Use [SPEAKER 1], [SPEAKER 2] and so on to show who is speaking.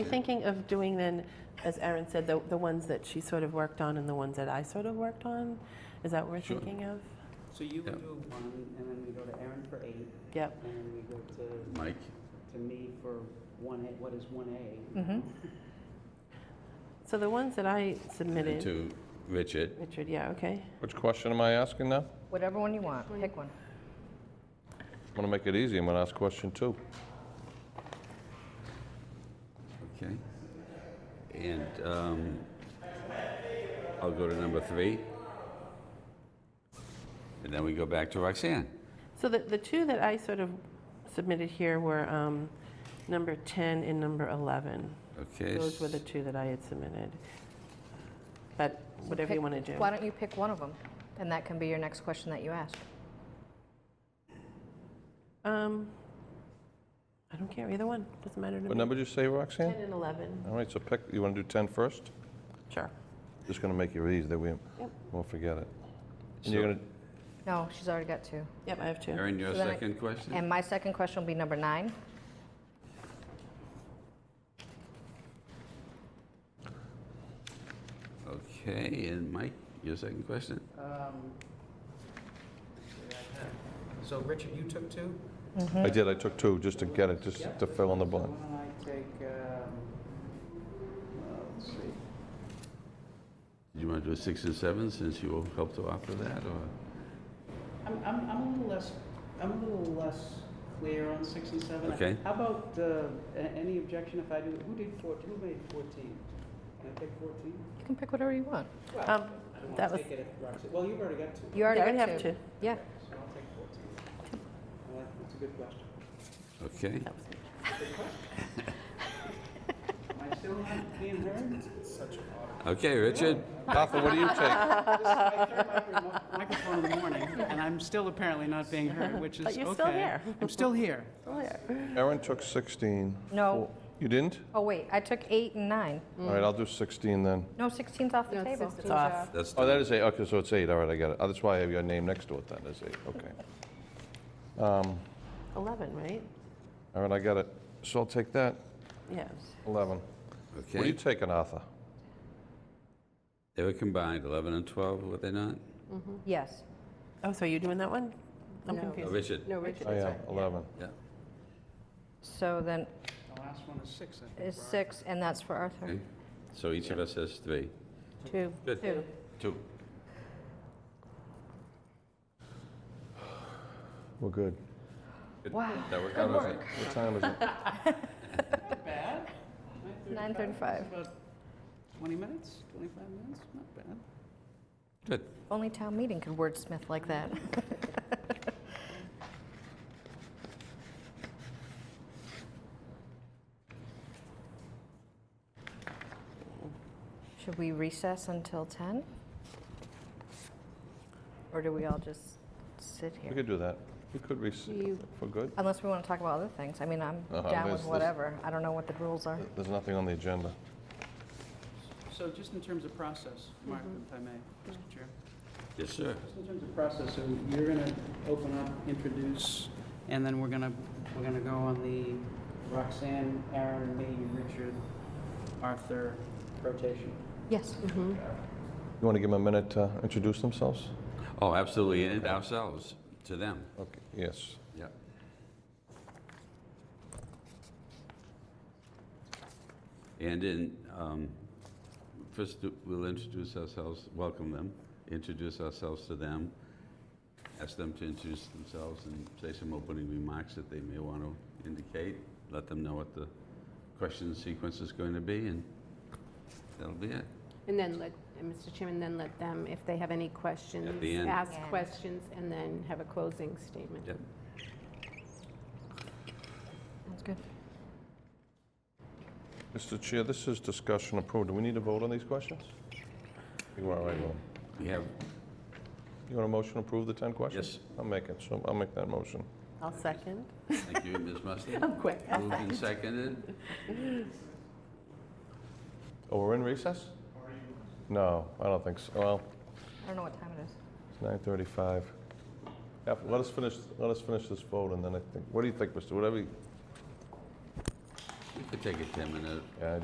[SPEAKER 1] I'm thinking of doing then, as Erin said, the, the ones that she sort of worked on and the ones that I sort of worked on? Is that what we're
[SPEAKER 2] Sure.
[SPEAKER 1] thinking of?
[SPEAKER 3] So you
[SPEAKER 2] Yeah.
[SPEAKER 3] can do one, and then we go to Aaron for eight,
[SPEAKER 1] Yep.
[SPEAKER 3] and then we go to,
[SPEAKER 2] Mike,
[SPEAKER 3] to me for one A, what is one A?
[SPEAKER 1] So the ones that I
[SPEAKER 2] and
[SPEAKER 1] submitted,
[SPEAKER 2] to Richard.
[SPEAKER 1] Richard, yeah, okay.
[SPEAKER 4] Which question am I asking now?
[SPEAKER 5] Whatever one you want, pick one.
[SPEAKER 4] I'm gonna make it easy, I'm gonna ask question two.
[SPEAKER 2] Okay. And um, I'll go to number three. And then we go back to Roxanne.
[SPEAKER 1] So the, the two that I sort of submitted here were um, number 10 and number 11.
[SPEAKER 2] Okay.
[SPEAKER 1] Those were the two that I had submitted. But whatever you
[SPEAKER 5] Pick-
[SPEAKER 1] want to do.
[SPEAKER 5] Why don't you pick one of them? And that can be your next question that you ask.
[SPEAKER 1] Um, I don't care, either one, doesn't matter to me.
[SPEAKER 4] What number did you say,
[SPEAKER 1] 10
[SPEAKER 4] Roxanne?
[SPEAKER 1] and 11,
[SPEAKER 4] All right, so pick, you wanna do 10 first?
[SPEAKER 1] sure.
[SPEAKER 4] Just gonna make it easy, that we won't forget it. And you're
[SPEAKER 2] So-
[SPEAKER 4] gonna,
[SPEAKER 5] No, she's already got two.
[SPEAKER 1] Yep, I have two.
[SPEAKER 2] Erin, your
[SPEAKER 5] So then I-
[SPEAKER 2] second question?
[SPEAKER 5] And my second question will be number nine.
[SPEAKER 2] Okay, and Mike, your second question?
[SPEAKER 3] Um, So Richard, you took two?
[SPEAKER 5] Mm-hmm.
[SPEAKER 4] I did, I took two, just to get it, just to fill in the blank.
[SPEAKER 3] So why don't I take, um, well, let's see,
[SPEAKER 2] You want to do six and seven since you will help to offer that or?
[SPEAKER 3] I'm, I'm, I'm a little less, I'm a little less clear on six and seven.
[SPEAKER 2] Okay.
[SPEAKER 3] How about, uh, a- any objection if I do, who did fourteen, who made fourteen? Can I take fourteen?
[SPEAKER 5] You can pick whatever you want.
[SPEAKER 3] Well,
[SPEAKER 1] Um,
[SPEAKER 3] I don't
[SPEAKER 1] that
[SPEAKER 3] wanna
[SPEAKER 1] was-
[SPEAKER 3] take it if Roxanne, well, you've already got two.
[SPEAKER 5] You
[SPEAKER 1] Yeah, I
[SPEAKER 5] already got
[SPEAKER 1] have two.
[SPEAKER 5] Yeah.
[SPEAKER 3] So I'll take 14. I like- That's a good question.
[SPEAKER 2] Okay.
[SPEAKER 1] That was me.
[SPEAKER 3] Am I still not being heard?
[SPEAKER 2] Okay, Richard?
[SPEAKER 4] Arthur, what do you take?
[SPEAKER 3] This is my third micro- microphone in the morning, and I'm still apparently not being heard, which is okay.
[SPEAKER 1] But you're still there.
[SPEAKER 3] I'm still here.
[SPEAKER 1] Oh, yeah.
[SPEAKER 4] Erin took 16.
[SPEAKER 5] No.
[SPEAKER 4] Four- You didn't?
[SPEAKER 5] Oh, wait, I took eight and nine.
[SPEAKER 4] All right, I'll do 16 then.
[SPEAKER 5] No, 16's off the table.
[SPEAKER 1] It's off.
[SPEAKER 2] That's
[SPEAKER 4] Oh, that is eight, okay, so it's eight, all right, I got it. Oh, That's why I have your name next to it then, is eight, okay. Um,
[SPEAKER 1] 11, right?
[SPEAKER 4] All right, I got it. So I'll take that,
[SPEAKER 1] Yeah.
[SPEAKER 4] 11. What are you
[SPEAKER 2] Okay.
[SPEAKER 4] taking, Arthur?
[SPEAKER 2] They were combined, 11 and 12, were they not?
[SPEAKER 5] Yes.
[SPEAKER 1] Oh, so are you doing that one? I'm
[SPEAKER 5] No.
[SPEAKER 2] Oh,
[SPEAKER 1] confused.
[SPEAKER 2] Richard?
[SPEAKER 5] No,
[SPEAKER 4] I am, 11.
[SPEAKER 2] Yeah.
[SPEAKER 5] So then
[SPEAKER 3] The last one is six, I think.
[SPEAKER 5] is
[SPEAKER 3] Brian.
[SPEAKER 5] six, and that's for Arthur.
[SPEAKER 2] Okay. So each of us has three.
[SPEAKER 1] Two.
[SPEAKER 2] Good.
[SPEAKER 1] Two.
[SPEAKER 2] Two.
[SPEAKER 4] We're good.
[SPEAKER 2] Good.
[SPEAKER 5] Wow.
[SPEAKER 2] That worked out okay.
[SPEAKER 4] What time is it?
[SPEAKER 3] Not bad.
[SPEAKER 5] 9:35.
[SPEAKER 3] It's about 20 minutes, 25 minutes, not bad.
[SPEAKER 2] Good.
[SPEAKER 5] Only town meeting could wordsmith like that. Should we recess until 10? Or do we all just sit
[SPEAKER 4] We
[SPEAKER 5] here?
[SPEAKER 4] could do that. We could recess for good.
[SPEAKER 5] Unless we want to talk about other things. I mean, I'm
[SPEAKER 4] Uh-huh,
[SPEAKER 5] down
[SPEAKER 4] there's-
[SPEAKER 5] with
[SPEAKER 4] there's-
[SPEAKER 5] whatever. I don't know what the rules are.
[SPEAKER 4] There's nothing on the agenda.
[SPEAKER 3] So just in terms of process, Mark, if I may, Mr. Chair.
[SPEAKER 2] Yes, sir.
[SPEAKER 3] Just in terms of process, so you're going to open up, introduce, and then we're going to, we're going to go on the Roxanne, Aaron, me, Richard, Arthur rotation.
[SPEAKER 5] Yes.
[SPEAKER 4] You want to give them a minute to introduce themselves?
[SPEAKER 2] Oh, absolutely, and ourselves, to them.
[SPEAKER 4] Okay, yes.
[SPEAKER 2] Yeah. And in, um, first, we'll introduce ourselves, welcome them, introduce ourselves to them, ask them to introduce themselves and say some opening remarks that they may want to indicate, let them know what the question sequence is going to be, and that'll be it.
[SPEAKER 6] And then let, and Mr. Chairman, then let them, if they have any questions.
[SPEAKER 2] end.
[SPEAKER 6] Ask
[SPEAKER 5] Yeah.
[SPEAKER 6] questions and then have a closing statement.
[SPEAKER 2] Yep.
[SPEAKER 5] Sounds good.
[SPEAKER 4] Mr. Chair, this is discussion approved. Do we need to vote on these questions? You are right, Lou.
[SPEAKER 2] We have,
[SPEAKER 4] You want a motion to approve the 10 questions?
[SPEAKER 2] Yes.
[SPEAKER 4] I'll make it, so I'll make that motion.
[SPEAKER 1] I'll second.
[SPEAKER 2] thank you, Ms. Musto.
[SPEAKER 1] I'm quick.
[SPEAKER 2] Moved and seconded.
[SPEAKER 4] Oh, we're in recess? No, I don't think so. Well,
[SPEAKER 5] I don't know what time it is.
[SPEAKER 4] it's 9:35. Yeah, Let us finish, let us finish this vote, and then I think, what do you think, Mr.? Whatever, you-
[SPEAKER 7] could take a 10-minute
[SPEAKER 2] Yeah,